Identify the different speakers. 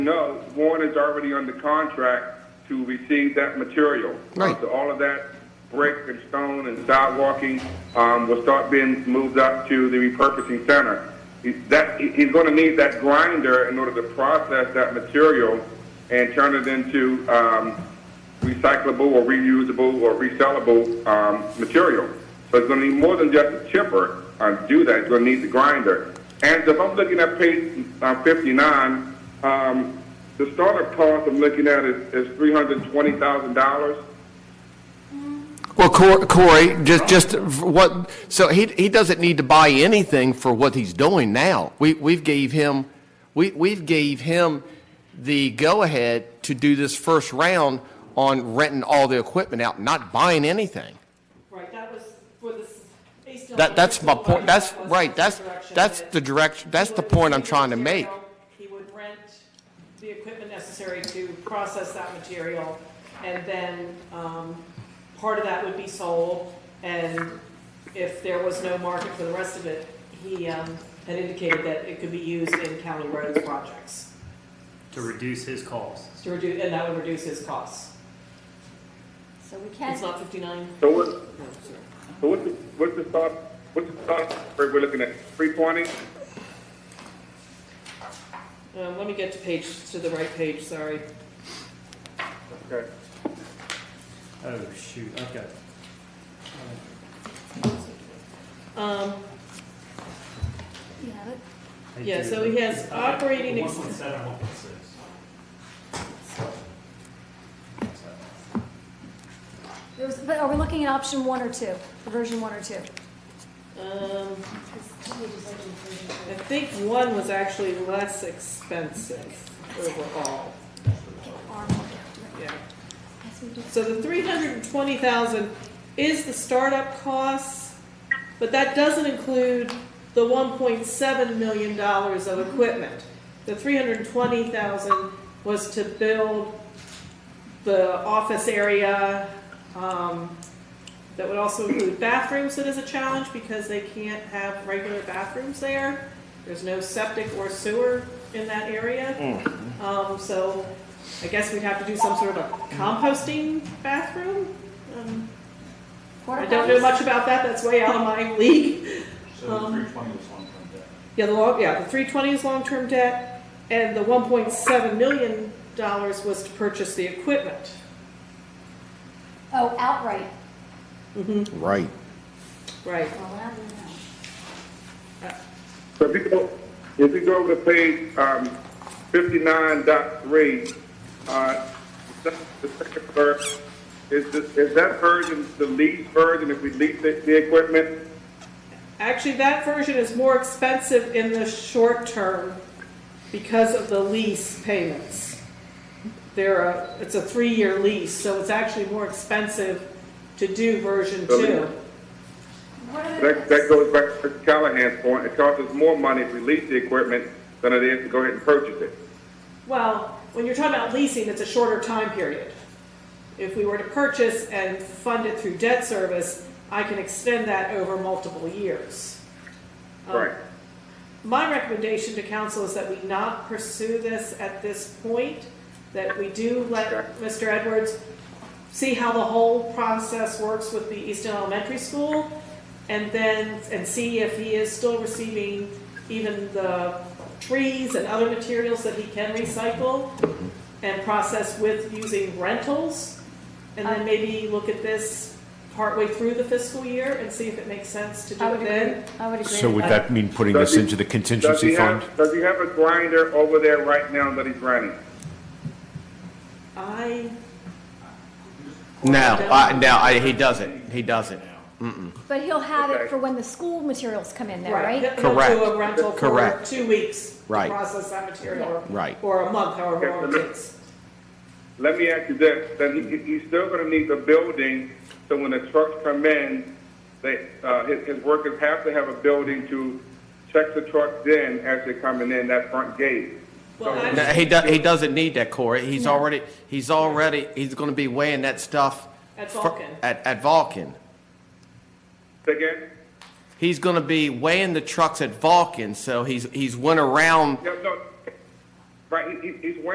Speaker 1: No, Warren is already under contract to receive that material.
Speaker 2: Right.
Speaker 1: Uh, So all of that brick and stone and sidewalking um, will start being moved up to the repurposing center. He- That, he- he's going to need that grinder in order to process that material and turn it into um, recyclable or reusable or resellable um, material. So it's going to need more than just a chipper uh, to do that. It's going to need the grinder. And if I'm looking at page uh, 59, um, the startup cost I'm looking at is, is $320,000.
Speaker 2: Well, Cor- Corey, just, just what, so he, he doesn't need to buy anything for what he's doing now. We, we've gave him, we, we've gave him the go-ahead to do this first round on renting all the equipment out, not buying anything.
Speaker 3: Right, that was for the, s- based on.
Speaker 2: That, that's my
Speaker 3: the
Speaker 2: point, that's,
Speaker 3: direction
Speaker 2: right, that's,
Speaker 3: direction
Speaker 2: that's
Speaker 3: that
Speaker 2: the direction, that's
Speaker 3: he
Speaker 2: the
Speaker 3: would
Speaker 2: point I'm
Speaker 3: receive
Speaker 2: trying to make.
Speaker 3: material, He would rent the equipment necessary to process that material, and then, um, part of that would be sold, and if there was no market for the rest of it, he, um, had indicated that it could be used in county roads projects
Speaker 4: to reduce his costs.
Speaker 3: to reduce, and that would reduce his costs.
Speaker 5: So we can,
Speaker 3: It's not fifty-nine?
Speaker 1: So what, so what's the, what's the start, what's the start, we're looking at 320?
Speaker 3: Um, let me get to page, to the right page, sorry.
Speaker 1: Okay.
Speaker 4: Oh, shoot, I've got,
Speaker 3: Um,
Speaker 5: you have it.
Speaker 4: I
Speaker 3: Yeah,
Speaker 4: do.
Speaker 3: so he has operating ex-
Speaker 4: One point seven, one point six.
Speaker 5: There was- But are we looking at option one or two, version one or two?
Speaker 3: um, I think one was actually less expensive overall,
Speaker 5: Or-
Speaker 3: yeah.
Speaker 5: Yes, we do.
Speaker 3: So the three hundred and twenty thousand is the startup costs, but that doesn't include the one point seven million dollars of equipment. The three hundred and twenty thousand was to build the office area, um, that would also include bathrooms, that is a challenge because they can't have regular bathrooms there. There's no septic or sewer in that area. Um, so I guess we'd have to do some sort of a composting bathroom. Um, I don't know much about that, that's way out of my league.
Speaker 6: So
Speaker 3: Um,
Speaker 6: the three twenty was long-term debt.
Speaker 3: Yeah, the long, yeah, the three twenty is long-term debt, and the one point seven million dollars was to purchase the equipment.
Speaker 5: Oh, outright.
Speaker 2: Right.
Speaker 3: Right,
Speaker 5: Well, I don't know.
Speaker 1: So if you go, if you go over to page, um, fifty-nine dot three, uh, the second verse, is this, is that version the lease version, if we lease the, the equipment?
Speaker 3: actually, that version is more expensive in the short term because of the lease payments. They're a, it's a three-year lease, so it's actually more expensive to do version
Speaker 1: Really?
Speaker 3: two.
Speaker 5: What are
Speaker 1: That,
Speaker 5: the-
Speaker 1: that goes back to Callahan's point, it costs us more money if we lease the equipment than it is to go ahead and purchase it.
Speaker 3: Well, when you're talking about leasing, it's a shorter time period. If we were to purchase and fund it through debt service, I can extend that over multiple years. Um,
Speaker 1: Right.
Speaker 3: My recommendation to council is that we not pursue this at this point, that we do
Speaker 1: Okay.
Speaker 3: let Mr. Edwards see how the whole process works with the Easton Elementary School, and then, and see if he is still receiving even the trees and other materials that he can recycle and process with using rentals, and then maybe look at this partway through the fiscal year and see if it makes sense to do
Speaker 5: I
Speaker 3: it
Speaker 5: would
Speaker 3: then.
Speaker 5: agree, I would agree.
Speaker 7: So would that mean putting
Speaker 1: Does
Speaker 7: this
Speaker 1: he-
Speaker 7: into the
Speaker 1: Does he
Speaker 7: contingency fund?
Speaker 1: have, does he have a grinder over there right now that he's running?
Speaker 3: I
Speaker 2: No, I, no, I, he doesn't, he doesn't.
Speaker 5: But he'll have
Speaker 1: Okay.
Speaker 5: it for when the school materials come in there, right?
Speaker 3: He'll- he'll do a
Speaker 2: Correct.
Speaker 3: rental for
Speaker 2: Correct.
Speaker 3: two weeks to
Speaker 2: Right.
Speaker 3: process that material.
Speaker 2: Yeah. Right.
Speaker 3: Or a month, however long it takes.
Speaker 1: Let me ask you this, then he, he's still gonna need the building, so when the trucks come in, they, uh, his, his workers have to have a building to check the trucks in as they're coming in that front gate.
Speaker 3: Well,
Speaker 2: No,
Speaker 3: actually,
Speaker 2: he does, he doesn't need that, Corey. He's already, he's already, he's gonna be weighing that stuff.
Speaker 3: At
Speaker 2: fir-
Speaker 3: Vulcan.
Speaker 2: At, at Vulcan.
Speaker 1: Say Again,
Speaker 2: He's going to be weighing the trucks at Vulcan, so he's, he's went around
Speaker 1: no, no, right, he, he- he's